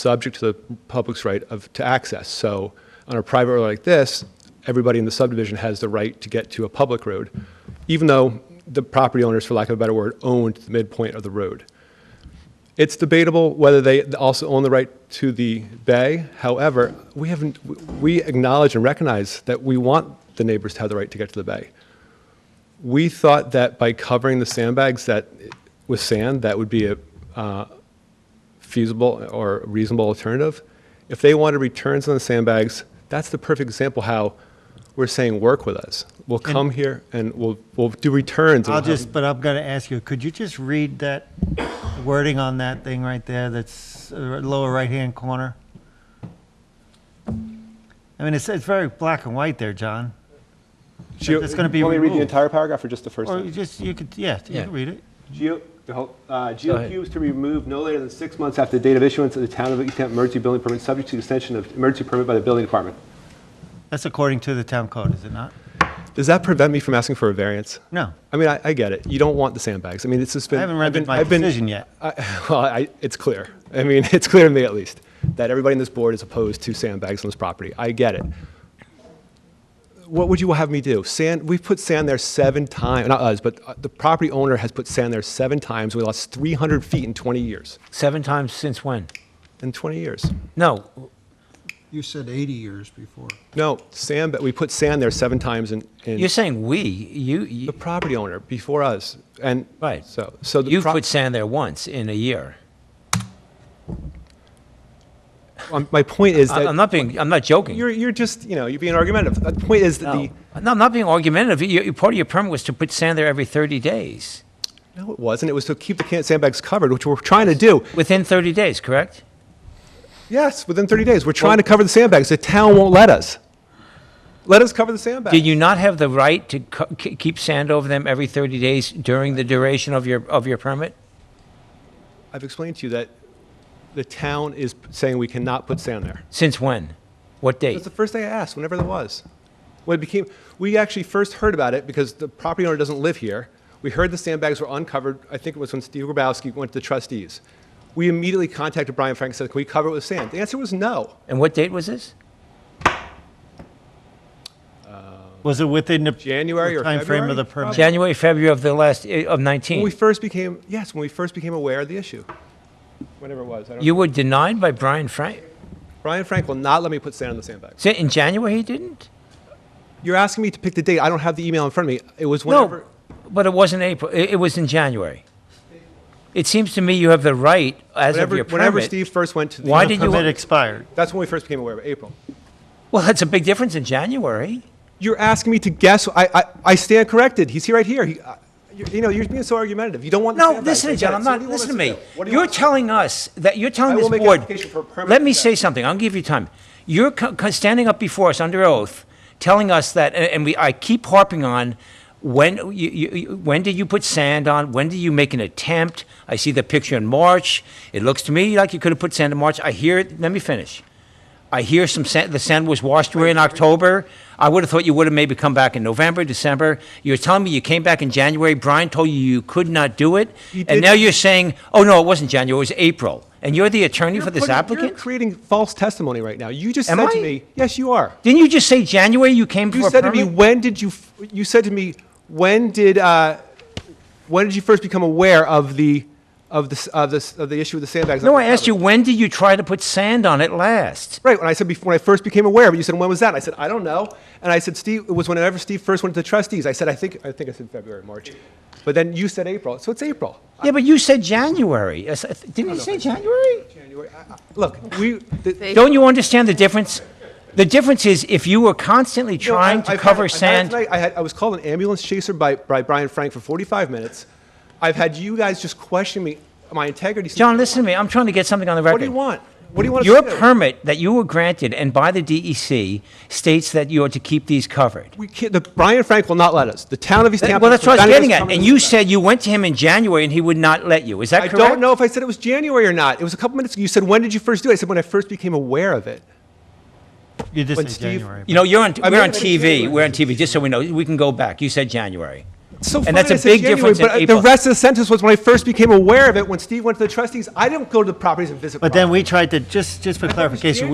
subject to the public's right of, to access. So on a private road like this, everybody in the subdivision has the right to get to a public road, even though the property owners, for lack of a better word, owned the midpoint of the road. It's debatable whether they also own the right to the bay. However, we haven't, we acknowledge and recognize that we want the neighbors to have the right to get to the bay. We thought that by covering the sandbags that, with sand, that would be a, uh, feasible or reasonable alternative. If they want to returns on the sandbags, that's the perfect example how we're saying work with us. We'll come here and we'll, we'll do returns. and I'll we'll have- just, but I'm going to ask you, could you just read that wording on that thing right there that's uh, lower right-hand corner? I mean, it's, it's very black and white there, John. Geo- that's gonna be Want me to read the removed. entire paragraph or just the first Or one? you just, you could, yeah, you Yeah. could read it. Geo, the whole, uh, ahead. GeoCubes to be removed no later than six months after the date of issuance of the Town of East Hampton emergency building permit, subject to extension of emergency permit by the building department. That's according to the town code, is it not? Does that prevent me from asking for a variance? No. I mean, I, I get it. You don't want the sandbags. I mean, it's just been. I haven't read I've been- my I've been- decision yet. I- Well, I, it's clear. I mean, it's clear to me at least, that everybody on this board is opposed to sandbags on this property. I get it. What would you have me do? Sand, we've put sand there seven times, not us, but uh, the property owner has put sand there seven times. We lost 300 feet in 20 years. Seven times since when? In 20 years. No, You said 80 years before. No, sand, but we put sand there seven times in, in you're saying we, you, the you property owner before us. And right. so, so the You've pro- put sand there once in a year. um, my point is I- that I'm not being, I'm not joking. you're, you're just, you know, you're being argumentative. The point is that No, the, No, I'm not being argumentative. You- you- Part of your permit was to put sand there every 30 days, No, it wasn't. It was to keep the can- sandbags covered, which we're trying to do. within 30 days, correct? Yes, within 30 days. We're trying to cover the sandbags. The town won't let us. Let us cover the sandbags. Did you not have the right to co- k- keep sand over them every 30 days during the duration of your, of your permit? I've explained to you that the town is p- saying we cannot put sand there. Since when? What That's date? the first day I asked, whenever there was. When it became, we actually first heard about it because the property owner doesn't live here. We heard the sandbags were uncovered. I think it was when Steve Grabowski went to the trustees. We immediately contacted Brian Frank and said, can we cover it with sand? The answer was no. And what date was this? Was it within the January or time frame February? of the permit? January, February of the last, eh, of When 19? we first became, yes, when we first became aware of the issue. Whenever it was, I don't You were denied by Brian Frank? Brian Frank will not let me put sand on the sandbags. Say, In January, he didn't? You're asking me to pick the date. I don't have the email in front of me. It was No, whenever. but it wasn't April, it it was in January. It seems to me you have the right, as of Whenever, your whenever permit. Steve first went to the. Why The did you- Permit expired. That's when we first became aware of it, April. Well, that's a big difference in January. You're asking me to guess. I, I, I stand corrected. He's here right here. He, I- you're- you know, you're being so argumentative. You don't want. the No, sandbags. listen, I to get John, it. I'm So what not, do you want listen to us me. do? What do you You're want us to do? telling us that, you're I telling will this make an board. application for a permit Let me for that. say something, I'll give you time. You're co- co- standing up before us under oath, telling us that, and and we, I keep harping on, when, you- you, you- when did you put sand on? When did you make an attempt? I see the picture in March. It looks to me like you could have put sand in March. I hear, it. let me finish. I hear some sand, the sand was washed away in October. I would have thought you would have maybe come back in November, December. You're telling me you came back in January. Brian told you you could not do it. He And did- now you're saying, oh, no, it wasn't January, it was April. And you're the attorney You're for this putting- You're applicant? creating false testimony right now. You just Am said I? to me, yes, you are. Didn't you just say January you came for You a said to me, permit? when did you, f- you said to me, when did, uh, when did you first become aware of the, of the, s- of the, s- of the issue with the sandbags? No, I asked you, when did you try to put sand on it last? Right, when I said before, when I first became aware of it, you said, when was that? And I said, I don't know. And I said, Steve, it was whenever Steve first went to the trustees. I said, I think, I think I said February, March. But then you said April, so it's April. Yeah, but you said January. I s- uh, Didn't you say January? January, I- I- Look, we. the- Don't you understand the difference? The difference is if you were constantly No, I- trying I've to had- cover I've had sand. tonight- I had, I was called an ambulance chaser by, by Brian Frank for 45 minutes. I've had you guys just question me, my integrity. since John, day listen to me. I'm trying to get something on the record. What do you want? What do you want us Your to do? permit that you were granted and by the DEC states that you are to keep these covered. we can't, the, Brian Frank will not let us. The town of East Hampton. Well, that's what I was prevented us getting from at. coming And to you this event. said you went to him in January and he would not let you. Is that I correct? don't know if I said it was January or not. It was a couple minutes ago. You said, when did you first do it? I said, when I first became aware of it. You When did say Steve- January. You know, you're on, I we're mean, on it's TV. January. We're on TV, just so we know. We can go back. You said January. So And fine, that's a I said big January, difference in But uh, April. the rest of the sentence was when I first became aware of it, when Steve went to the trustees, I didn't go to the properties and visit. But then properties. we tried to, just, just for I thought it was clarification,